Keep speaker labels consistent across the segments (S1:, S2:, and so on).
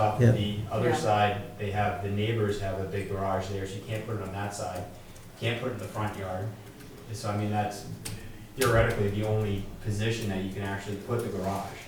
S1: Off
S2: Yeah.
S1: the other
S3: Yeah.
S1: side, they have, the neighbors have a big garage there, so you can't put it on that side, can't put it in the front yard. So I mean, that's theoretically the only position that you can actually put the garage.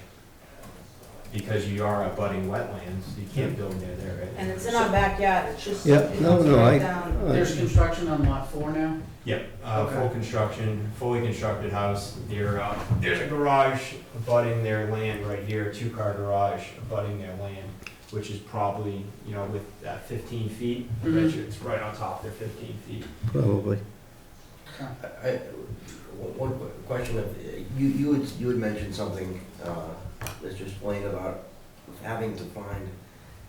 S1: Because you are abutting wetlands, you can't build near there. right?
S3: And it's in our backyard, it's just.
S2: Yeah,
S3: it
S2: no,
S3: comes
S2: no,
S3: right
S2: I-
S3: down.
S4: There's construction on lot four now?
S1: Yep, uh, full
S4: Okay.
S1: construction, fully constructed house, there, uh, there's a garage abutting their land right here, a two-car garage abutting their land, which is probably, you know, with that fifteen feet, I bet
S4: Mhm.
S1: you it's right on top of their fifteen feet.
S2: Probably.
S5: I- I- One one question, of- you, you had, you had mentioned something, uh, Mr. Spillane, about having to find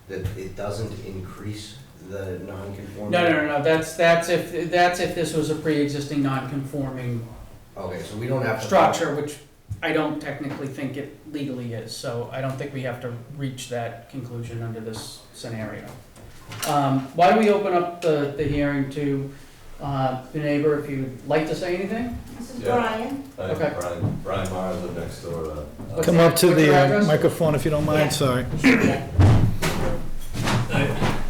S5: that it doesn't increase the
S4: No,
S5: non-conformity.
S4: no, no, no, that's, that's if, that's if this was a pre-existing non-conforming
S5: Okay, so we don't have to.
S4: structure, which I don't technically think it legally is, so I don't think we have to reach that conclusion under this scenario. Um, Why do we open up the, the hearing to uh, the neighbor, if you'd like to say anything?
S3: This is
S6: Yeah.
S3: Brian,
S6: Hi,
S4: Okay.
S6: Uh, Brian, Brian Myers lived next door. uh, uh,
S4: What's
S2: Come up to
S4: your
S2: the uh,
S4: address?
S2: microphone if you don't
S3: Yeah.
S2: mind, sorry.
S3: yeah,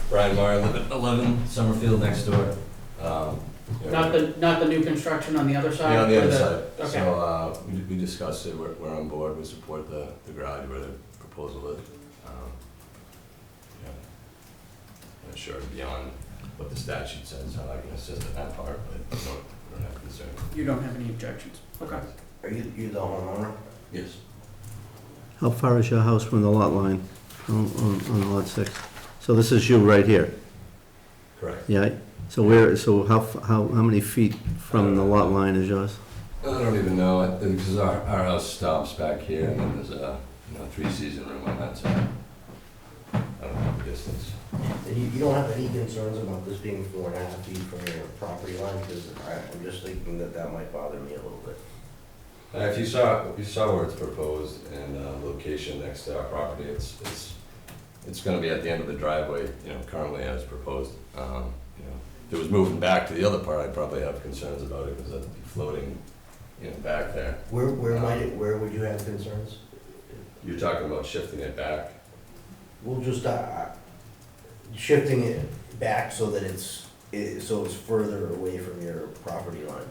S6: Brian Myers lived at 11 Summerfield next door. Um, you know,
S4: Not the, not the new construction on the other side?
S6: Yeah, on the
S4: or
S6: other side.
S4: okay.
S6: So uh, we we discussed it, we're we're on board, we support the the garage where the proposal is. Um, yeah. Not sure beyond what the statute says, how I can assist in that part, but we don't- we don't have concerns.
S4: You don't have any objections? Okay.
S5: Are you, you the homeowner?
S6: Yes.
S2: How far is your house from the lot line on, on on lot six? So this is you right here,
S6: Correct.
S2: yeah? So where, so how, f- how, how many feet from the lot line is yours?
S6: I don't even know, I think, because our our house stops back here, and then there's a, you know, three-season room on that side. I don't know the distance.
S5: And you, you don't have any concerns about this being four and a half feet from your property line? Because I'm just thinking that that might bother me a little bit.
S6: Uh, If you saw, if you saw where it's proposed and uh, location next to our property, it's, it's, it's gonna be at the end of the driveway, you know, currently as proposed. Um, You know, If it was moving back to the other part, I'd probably have concerns about it, because that'd be floating, you know, back there.
S5: Where, where might it, where would you have concerns?
S6: You're talking about shifting it back.
S5: We'll just, uh, shifting it back so that it's, i- so it's further away from your property line.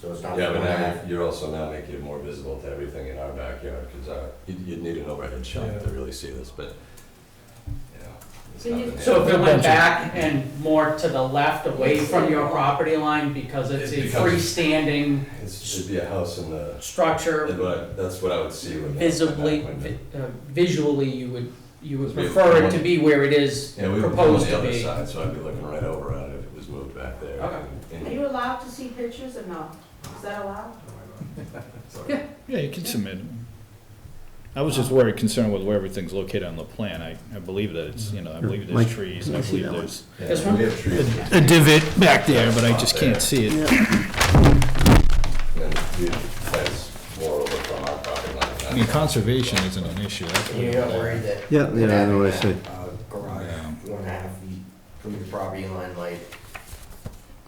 S5: So it's not.
S6: Yeah, but now, you're also now making it more visible to everything in our backyard, because you'd, you'd need an overhead shot to really see this, but, you know. it's
S3: So you-
S6: nothing.
S4: So if it went back and more to the left, away from your property line, because it's a
S6: It becomes-
S4: freestanding
S6: It's- It'd be a house in the,
S4: structure,
S6: But that's what I would see with. that-
S4: visibly,
S6: that window.
S4: vi- uh, visually, you would, you would
S6: Because we-
S4: prefer it to be where it is
S6: Yeah, we would go on
S4: proposed
S6: the
S4: to
S6: other
S4: be.
S6: side, so I'd be looking right over at it if it was moved back there.
S4: Okay.
S6: And-
S3: are you allowed to see pictures or no? Is that allowed?
S7: Yeah, you can submit. I was just worried, concerned with where everything's located on the plan. I, I believe that it's, you know, I believe
S2: Mike,
S7: there's trees,
S2: can
S7: and I
S2: I see that
S7: believe
S2: one?
S7: there's
S6: Yeah,
S4: This one?
S6: We have trees, and
S7: a divot back there, but I just can't see it.
S6: then we fence more over from our property
S7: I mean,
S6: line.
S7: conservation isn't an issue. that's what-
S5: You're not worried that.
S2: Yeah, yeah, I
S5: that
S2: know what
S5: having
S2: you're
S5: that, uh, Garage, one and a half feet from your property line might.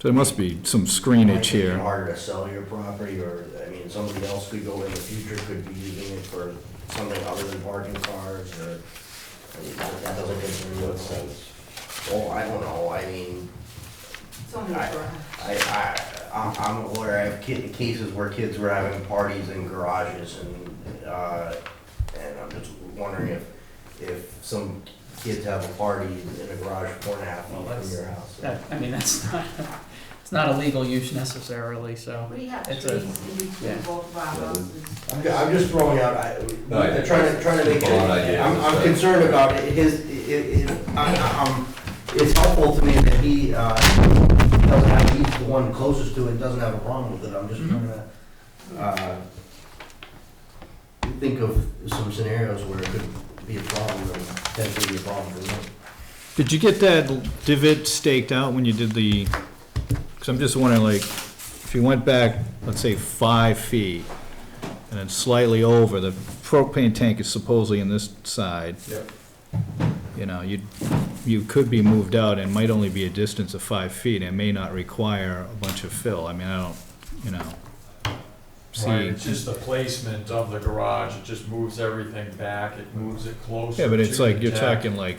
S7: So there must be some
S5: might
S7: screenage
S5: make it
S7: here.
S5: Harder to sell your property, or, I mean, somebody else could go in the future, could be using it for something other than parking cars, or. I mean, That doesn't concern you,
S6: What
S5: it's,
S6: sense?
S5: oh, I don't know, I mean.
S3: It's only a
S5: I-
S3: garage.
S5: I, I, I'm- I'm aware of ki- cases where kids were having parties in garages and, uh, and I'm just wondering if, if some kids have a party in a garage four and a half
S4: Well,
S5: feet from
S4: that's-
S5: your house.
S4: That, I mean, that's not, it's not a legal use necessarily, so.
S3: We have
S4: It's
S3: trees
S4: a-
S3: in between
S4: yeah.
S3: both of our houses.
S5: I'm, ju- I'm just throwing out, I,
S6: No, I-
S5: I'm trying to, trying to make it,
S6: Broad idea,
S5: I'm, I'm
S6: so-
S5: concerned about it, his, it, it, I, I'm, it's helpful to me that he, uh, doesn't have, he's the one closest to it, doesn't have a problem with it, I'm just trying to, uh, think of some scenarios where it could be a problem, or potentially be a problem for me.
S7: Did you get that divot staked out when you did the, because I'm just wondering, like, if you went back, let's say, five feet, and then slightly over, the propane tank is supposedly in this side.
S6: Yep.
S7: You know, you, you could be moved out, and might only be a distance of five feet, and may not require a bunch of fill, I mean, I don't, you know,
S8: Right,
S7: see,
S8: it's just the placement of the garage, it just moves everything back, it moves it closer.
S7: yeah, but it's
S8: to
S7: like,
S8: the
S7: you're
S8: deck.
S7: talking like